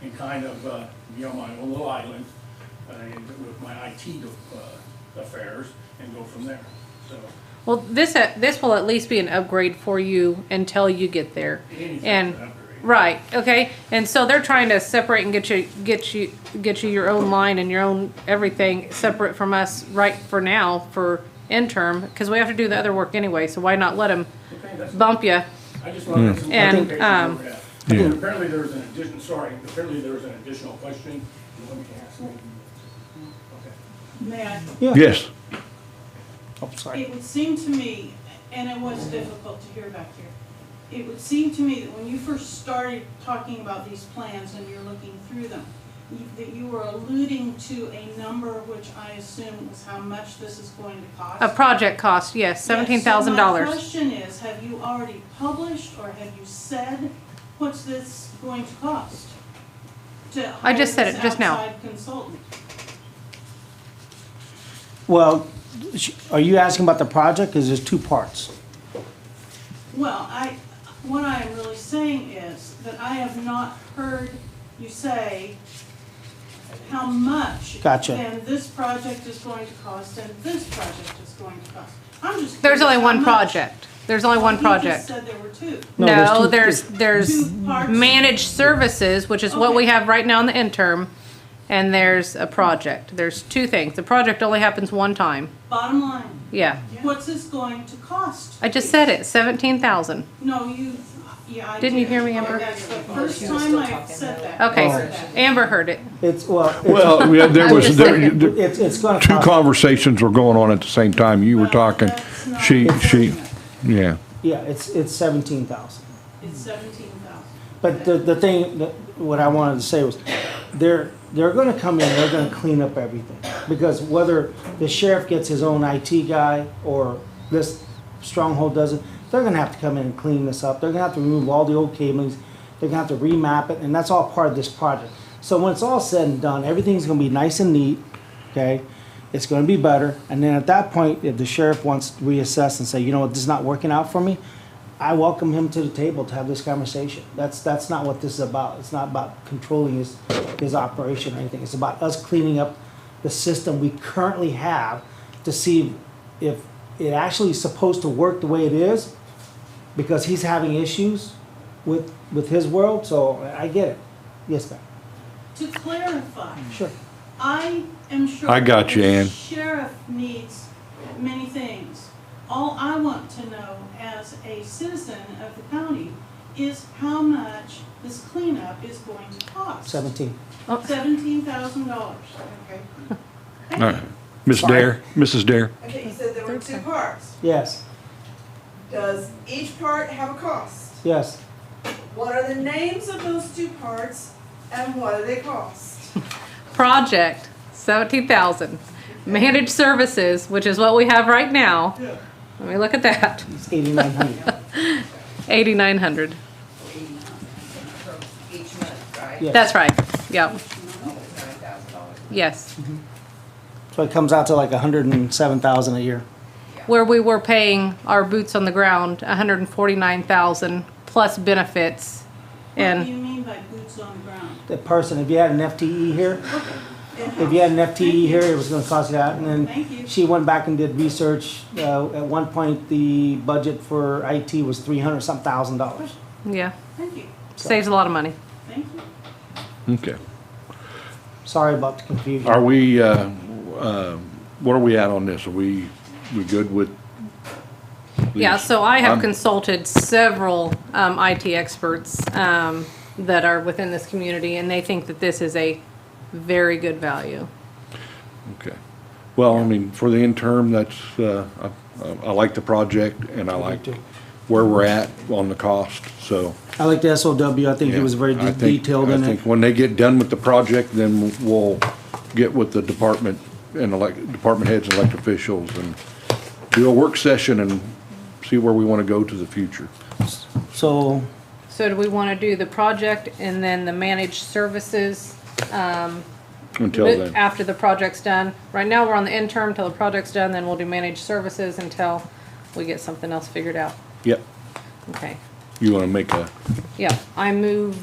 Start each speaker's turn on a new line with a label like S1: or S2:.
S1: and kind of, uh, be on my own little island, uh, and with my IT, uh, affairs, and go from there, so.
S2: Well, this, uh, this will at least be an upgrade for you until you get there.
S1: anything's
S2: And,
S1: an upgrade.
S2: right, okay, and so they're trying to separate and get you, get you, get you your own line and your own everything separate from us right for now for interim, cause we have to do the other work anyway, so why not let them
S1: Okay, that's-
S2: bump you?
S1: I just wanted some
S2: And,
S1: clarification
S2: um,
S1: over that.
S3: Yeah.
S1: And Apparently there was an addition, sorry, apparently there was an additional question. You want me to ask it? Okay.
S4: May I?
S3: Yes.
S4: It would seem to me, and it was difficult to hear back here, it would seem to me that when you first started talking about these plans and you're looking through them, you- that you were alluding to a number which I assume was how much this is going to cost.
S2: A project cost, yes, seventeen thousand
S4: Yes, so my
S2: dollars.
S4: question is, have you already published or have you said what's this going to cost? To
S2: I just
S4: hire
S2: said it
S4: this
S2: just now.
S4: outside consultant?
S5: Well, sh- are you asking about the project? Because there's two parts.
S4: Well, I, what I am really saying is that I have not heard you say how much.
S5: Gotcha.
S4: And this project is going to cost, and this project is going to cost. I'm just.
S2: There's
S4: curious
S2: only
S4: how
S2: one
S4: much.
S2: project, there's only one
S4: Well, You just
S2: project.
S4: said there were two.
S5: No, there's
S2: No,
S5: two-
S2: there's, there's
S4: Two parts.
S2: managed services, which is what we
S4: Okay.
S2: have right now in the interim, and there's a project. There's two things. The project only happens one time.
S4: Bottom line,
S2: Yeah.
S4: what's this going to cost?
S2: I just said it, seventeen thousand.
S4: No, you, yeah, I did.
S2: Didn't you hear me,
S4: Oh,
S2: Amber?
S4: That's the first time I've said that.
S2: Okay,
S4: Said that.
S2: Amber heard it.
S5: It's, well, it's,
S3: Well, yeah, there
S2: I'm
S3: was,
S2: just
S3: there,
S2: saying.
S3: there-
S5: it's, it's gonna
S3: two
S5: cost,
S3: conversations were going on at the same time. You were
S4: Well,
S3: talking,
S4: that's not
S3: she, she,
S4: fortunate.
S3: yeah.
S5: yeah, it's, it's seventeen thousand.
S4: It's seventeen thousand.
S5: But the, the thing, that- what I wanted to say was, they're, they're gonna come in, they're gonna clean up everything. Because whether the sheriff gets his own IT guy, or this stronghold doesn't, they're gonna have to come in and clean this up. They're gonna have to remove all the old cablings, they're gonna have to remap it, and that's all part of this project. So when it's all said and done, everything's gonna be nice and neat, okay? It's gonna be better, and then at that point, if the sheriff wants to reassess and say, you know what, this is not working out for me, I welcome him to the table to have this conversation. That's, that's not what this is about. It's not about controlling his, his operation or anything. It's about us cleaning up the system we currently have to see if it actually is supposed to work the way it is, because he's having issues with, with his world, so I get it. Yes, ma'am.
S4: To clarify,
S5: Sure.
S4: I am sure.
S3: I got you,
S4: the
S3: Ann.
S4: Sheriff needs many things. All I want to know as a citizen of the county is how much this cleanup is going to cost.
S5: Seventeen.
S4: Seventeen thousand dollars.
S6: Okay,
S3: All right. Uh, Miss Dare, Mrs. Dare,
S6: okay, you said there were two parts.
S5: Yes,
S6: Does each part have a cost?
S5: yes.
S6: What are the names of those two parts and what do they cost?
S2: Project, seventeen thousand. Managed services, which is what we have right now. Let me look at that.
S5: It's eighty-nine hundred.
S2: Eighty-nine hundred.
S6: Each month, right?
S5: Yes.
S2: That's right. Yep.
S6: $9,000.
S2: Yes.
S5: So it comes out to like a hundred and seven thousand a year.
S2: where we were paying our boots on the ground 149,000 plus benefits
S4: What do
S2: and
S4: you mean by boots on the ground?
S5: The person, if you had an FTE here, If you had an FTE here, it was gonna cost you that, and
S4: Thank you.
S5: then she went back and did research. Uh, at one point, the budget for IT was three hundred some thousand dollars.
S2: yeah
S4: Thank you,
S2: saves a lot of money
S4: thank you.
S3: okay.
S5: Sorry about the confusion.
S3: Are we, uh, uh, what are we at on this? Are we, we good with?
S2: yeah
S3: these?
S2: so i have
S3: I'm-
S2: consulted several um, it experts um, that are within this community and they think that this is a very good value
S3: Okay. Well, I mean, for the interim, that's, uh, I, I like the project and I like
S5: too.
S3: where we're at on the cost, so.
S5: I like the SOW, I think it was very
S3: I
S5: de-
S3: think-
S5: detailed
S3: I
S5: in
S3: think
S5: it.
S3: When they get done with the project, then we'll get with the department and elect, department heads and elected officials and do a work session and see where we want to go to the future.
S5: So,
S2: so do we want to do the project and then the managed services
S3: Until
S2: bit
S3: then,
S2: after the project's done right now we're on the interim till the project's done then we'll do managed services until we get something else figured out
S3: yep,
S2: okay
S3: you want to make a
S2: Yeah, I move